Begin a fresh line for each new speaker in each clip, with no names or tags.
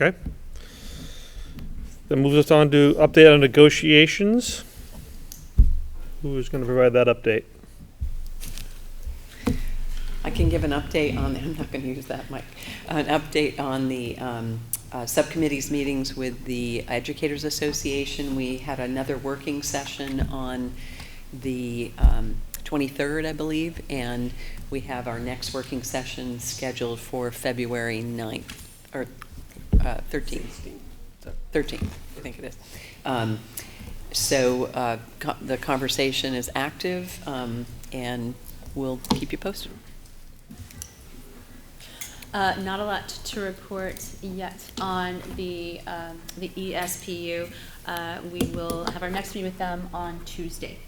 Okay. That moves us on to update on negotiations. Who is going to provide that update?
I can give an update on, I'm not going to use that mic, an update on the um, uh, subcommittees meetings with the Educators Association. We had another working session on the um, 23rd, I believe, and we have our next working session scheduled for February 9th, or uh, 13th. 13th, I think it is. Um, So uh, co- the conversation is active, um, and we'll keep you posted.
Uh, not a lot to report yet on the, um, the ESPU. Uh, we will have our next meeting with them on Tuesday.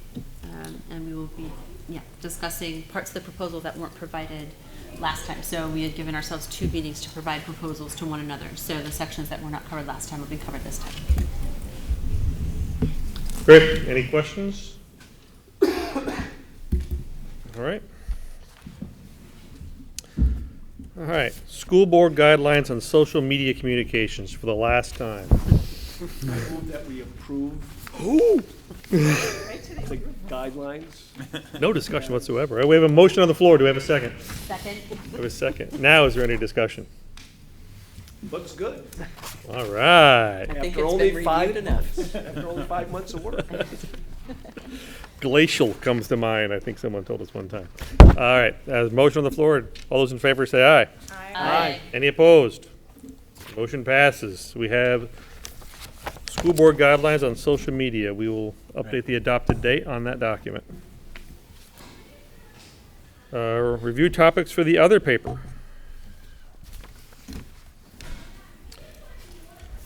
Um, and we will be, yeah, discussing parts of the proposal that weren't provided last time. So we had given ourselves two meetings to provide proposals to one another. So the sections that were not covered last time will be covered this time.
Great. Any questions? All right. All right. School board guidelines on social media communications for the last time.
I move that we approve the guidelines.
No discussion whatsoever. We have a motion on the floor. Do we have a second?
Second,
We have a second. Now is there any discussion?
Looks good.
All right.
I think
After
it's
only
been
five
reviewed enough.
After only five months of work.
Glacial comes to mind. I think someone told us one time. All right. Uh, motion on the floor. All those in favor say aye.
aye.
Any opposed? Motion passes. We have school board guidelines on social media. We will update the adopted date on that document. Uh, Review topics for the other paper.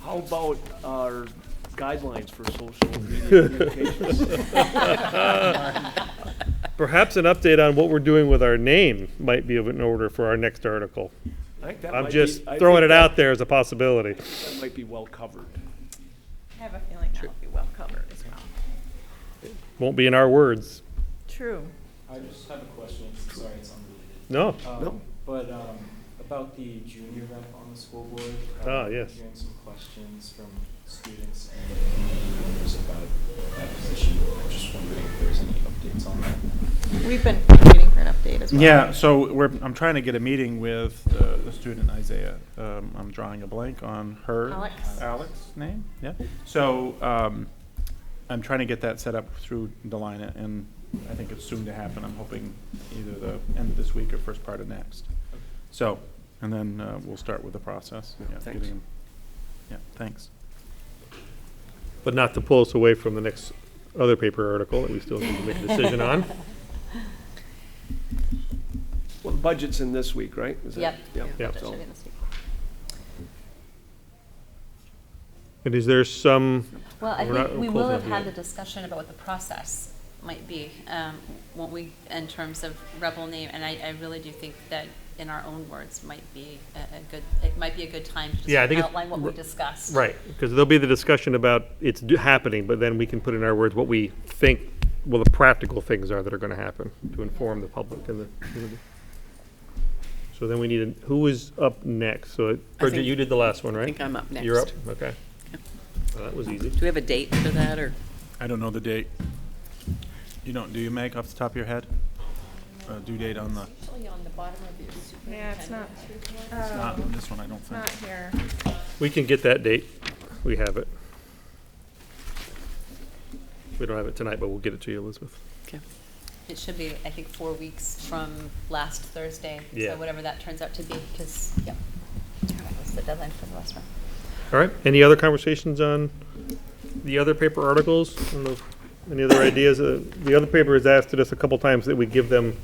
How about our guidelines for social media communications?
Perhaps an update on what we're doing with our name might be of an order for our next article.
I think that might
I'm
be-
just
I
throwing
think
it out there as a possibility.
That might be well covered.
I have a feeling that will be well covered as well.
Won't be in our words.
True.
I just have a question, sorry, it's unrelated.
No.
Um,
No.
But, um, about the junior rep on the school board. uh,
Ah, yes.
Hearing some questions from students and community members about that position, I'm just wondering if there's any updates on that.
We've been waiting for an update as well.
Yeah, so we're, I'm trying to get a meeting with uh, the student Isaiah. Um, I'm drawing a blank on her.
Alex.
Alex's name, yeah. So um, I'm trying to get that set up through Delina, and I think it's soon to happen. I'm hoping either the end of this week or first part of next. So, and then uh, we'll start with the process. Yeah,
Thanks.
getting- Yeah, thanks.
But not to pull us away from the next other paper article that we still need to make a decision on.
Well, the budget's in this week, right? Is that-
Yep.
Yep.
That should
So-
be in this week.
And is there some
Well, I
We're not
think we
closing
will
up
have had the
yet.
discussion about what the process might be, um, won't we, in terms of rebel name, and I, I really do think that in our own words might be a, a good, it might be a good time to
Yeah, I think
just
it's-
outline what we
we're-
discussed.
Right, because there'll be the discussion about it's do- happening, but then we can put in our words what we think, well, the practical things are that are going to happen to inform the public and the community. So then we need, a- who is up next? So Bridget,
think-
you did the last one,
I
right?
think I'm up next.
You're up, okay. Well, That was easy.
Do we have a date for that, or?
I don't know the date. You don't, do you, Meg, off the top of your head? Uh, Due date on the,
Yeah, it's not, uh,
it's not on this one, I don't
it's
think.
not here.
We can get that date. We have it. We don't have it tonight, but we'll get it to you, Elizabeth.
It should be, I think, four weeks from last Thursday,
Yeah.
so whatever that turns out to be, because, yeah. That was the deadline for the last one.
All right, any other conversations on the other paper articles? And the- Any other ideas? Uh, The other paper has asked us a couple times that we give them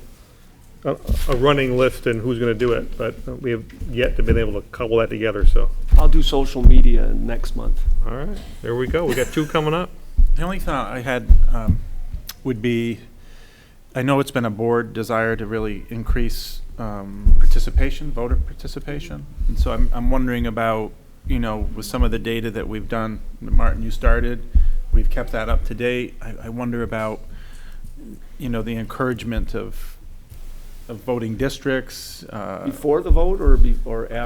a, a running list and who's gonna do it, but we have yet to been able to cobble that together, so.
I'll do social media next month.
All right, there we go. We got two coming up.
The only thought I had um, would be, I know it's been a board desire to really increase um, participation, voter participation. And so I'm, I'm wondering about, you know, with some of the data that we've done, Martin, you started, we've kept that up to date. I, I wonder about, you know, the encouragement of, of voting districts. uh,
Before the vote or be, or after?